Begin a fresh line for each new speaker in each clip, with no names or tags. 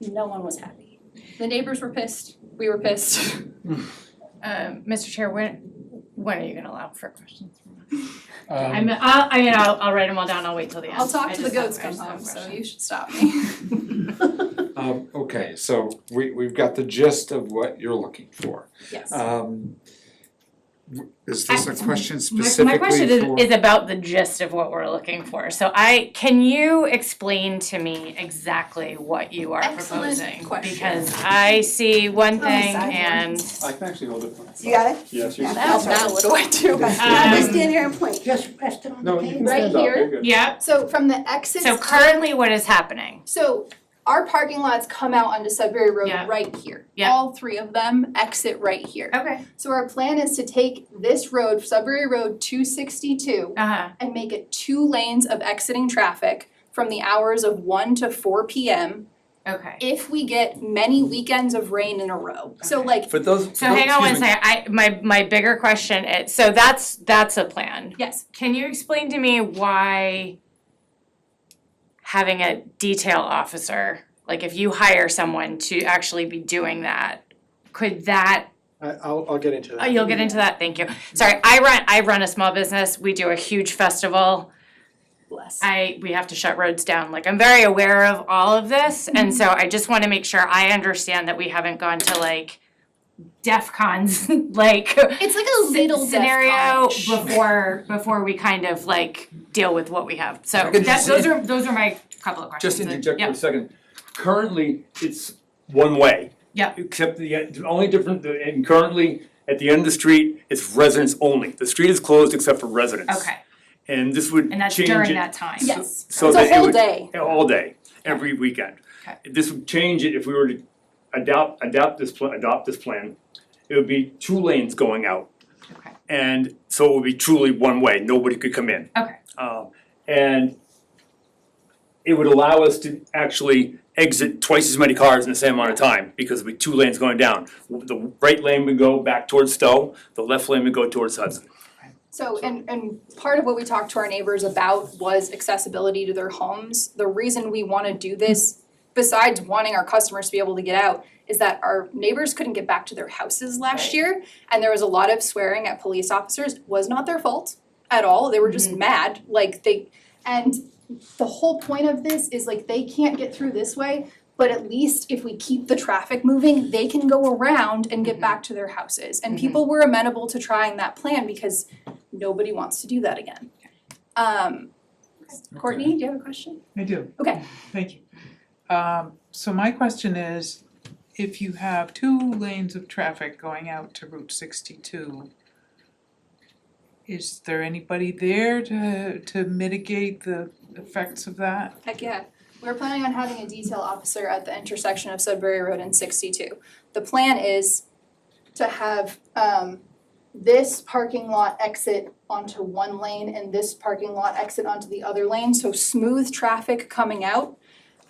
no one was happy. The neighbors were pissed, we were pissed.
Um, Mr. Chair, when, when are you gonna allow for questions? I
Um,
mean, I'll, I mean, I'll, I'll write them all down, I'll wait till the end.
I'll talk
I
to the
just have-
goats
I
come
just have
home, so
questions.
you should stop me.
um, okay, so we, we've got the gist of what you're looking for.
Yes.
Uh,
Um, w- is this a
I-
question
My-
specifically for?
My question is, is about the gist of what we're looking for, so I, can you explain to me exactly what you are proposing?
Excellent question.
Because I see one
the
thing
side one.
and,
I can actually hold it. for
You got it?
Yes, you.
Yeah.
Now,
That's all
now
right.
what do I do?
Now just
Um,
stand here and point.
Just rest it on the
No, you
table.
can
Right
stand up,
here?
you're good.
yeah,
So from the exits.
so
out-
currently what is happening?
So our parking lots come out onto Sudbury Road
Yeah.
right here.
Yeah.
All three of them exit right here.
Okay.
So our plan is to take this road, Sudbury Road two sixty-two,
Uh-huh,
and make it two lanes of exiting traffic from the hours of one to four P M.
okay.
If we get many weekends of rain in a row. So
Okay.
like,
For those.
So hang on one second, I, my, my bigger question is, so that's, that's a plan.
yes,
Can you explain to me why having a detail officer, like if you hire someone to actually be doing that, could that,
I, I'll, I'll get into
oh,
that.
you'll get into that, thank you. Sorry, I run, I run a small business, we do a huge festival.
bless.
I, we have to shut roads down, like I'm very aware of all of this, and so I just wanna make sure I understand that we haven't gone to like DEF cons, like
It's like a
sce-
little
scenario
DEFCON-ish.
before before we kind of like deal with what we have. So
I could
that,
just-
those are those are my couple of questions.
Just interject for
Yeah.
a second. Currently, it's one way.
Yeah.
Except the, the only different, and currently, at the end of the street, it's residents only. The street is closed except for residents.
Okay,
And this would change it.
and that's during that time.
Yes.
So
It's a
that it
whole
would.
day.
All day, every weekend.
Okay.
This would change it if we were to adopt, adopt this, pla- adopt this plan. It would be two lanes going out.
Okay.
And so it would be truly one way, nobody could come in.
Okay.
Um, and it would allow us to actually exit twice as many cars in the same amount of time, because it'd be two lanes going down. The right lane would go back towards Stowe, the left lane would go towards Hudson.
So, and, and part of what we talked to our neighbors about was accessibility to their homes. The reason we wanna do this, besides wanting our customers to be able to get out, is that our neighbors couldn't get back to their houses last
Right.
year. And there was a lot of swearing at police officers, It was not their fault at all, they were just mad, like they, and the whole point of this is like they can't get through this way, but at least if we keep the traffic moving, they can go around and get back to their houses. And
Mhm.
people were amenable to trying that plan because nobody wants to do that again. Um, Courtney, do you have a question?
I do.
Okay.
Thank you. Um, so my question is, if you have two lanes of traffic going out to Route sixty-two, is there anybody there to, to mitigate the effects of that?
Heck yeah. We're planning on having a detail officer at the intersection of Sudbury Road and sixty-two. The plan is to have um this parking lot exit onto one lane and this parking lot exit onto the other lane, so smooth traffic coming out.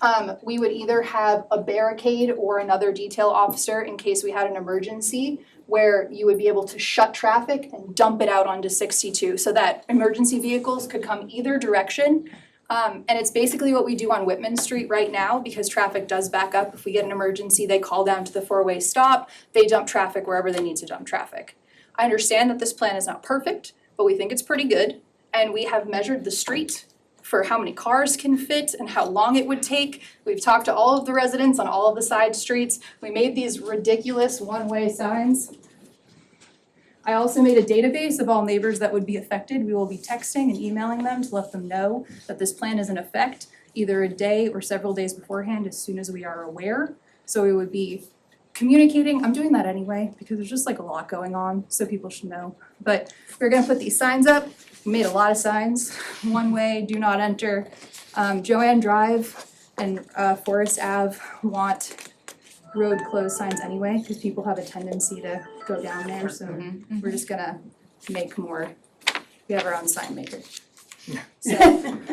Um, we would either have a barricade or another detail officer in case we had an emergency where you would be able to shut traffic and dump it out onto sixty-two so that emergency vehicles could come either direction um, and it's basically what we do on Whitman Street right now, because traffic does back up. If we get an emergency, they call down to the four-way stop, they dump traffic wherever they need to dump traffic. I understand that this plan is not perfect, but we think it's pretty good, and we have measured the street for how many cars can fit and how long it would take. We've talked to all of the residents on all of the side streets. We made these ridiculous one-way signs. I also made a database of all neighbors that would be affected. We will be texting and emailing them to let them know that this plan is in effect either a day or several days beforehand as soon as we are aware. So we would be communicating, I'm doing that anyway because there's just like a lot going on, so people should know. But we're gonna put these signs up, we made a lot of signs, one way, do not enter. Um, Joanne Drive and uh, Forest Ave want road closed signs anyway, cause people have a tendency to go down there, so we're just gonna make more, we have our own sign maker. So,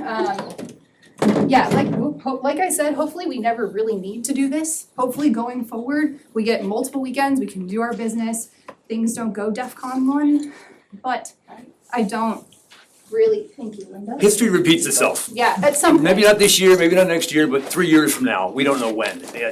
um, yeah, like, ho- ho- like I said, hopefully we never really need to do this. Hopefully going forward, we get multiple weekends, we can do our business, things don't go DEFCON one, but I don't really, thank you, Linda.
History repeats itself.
Yeah, at some point.
Maybe not this year, maybe not next year, but three years from now, we don't know when. Yeah,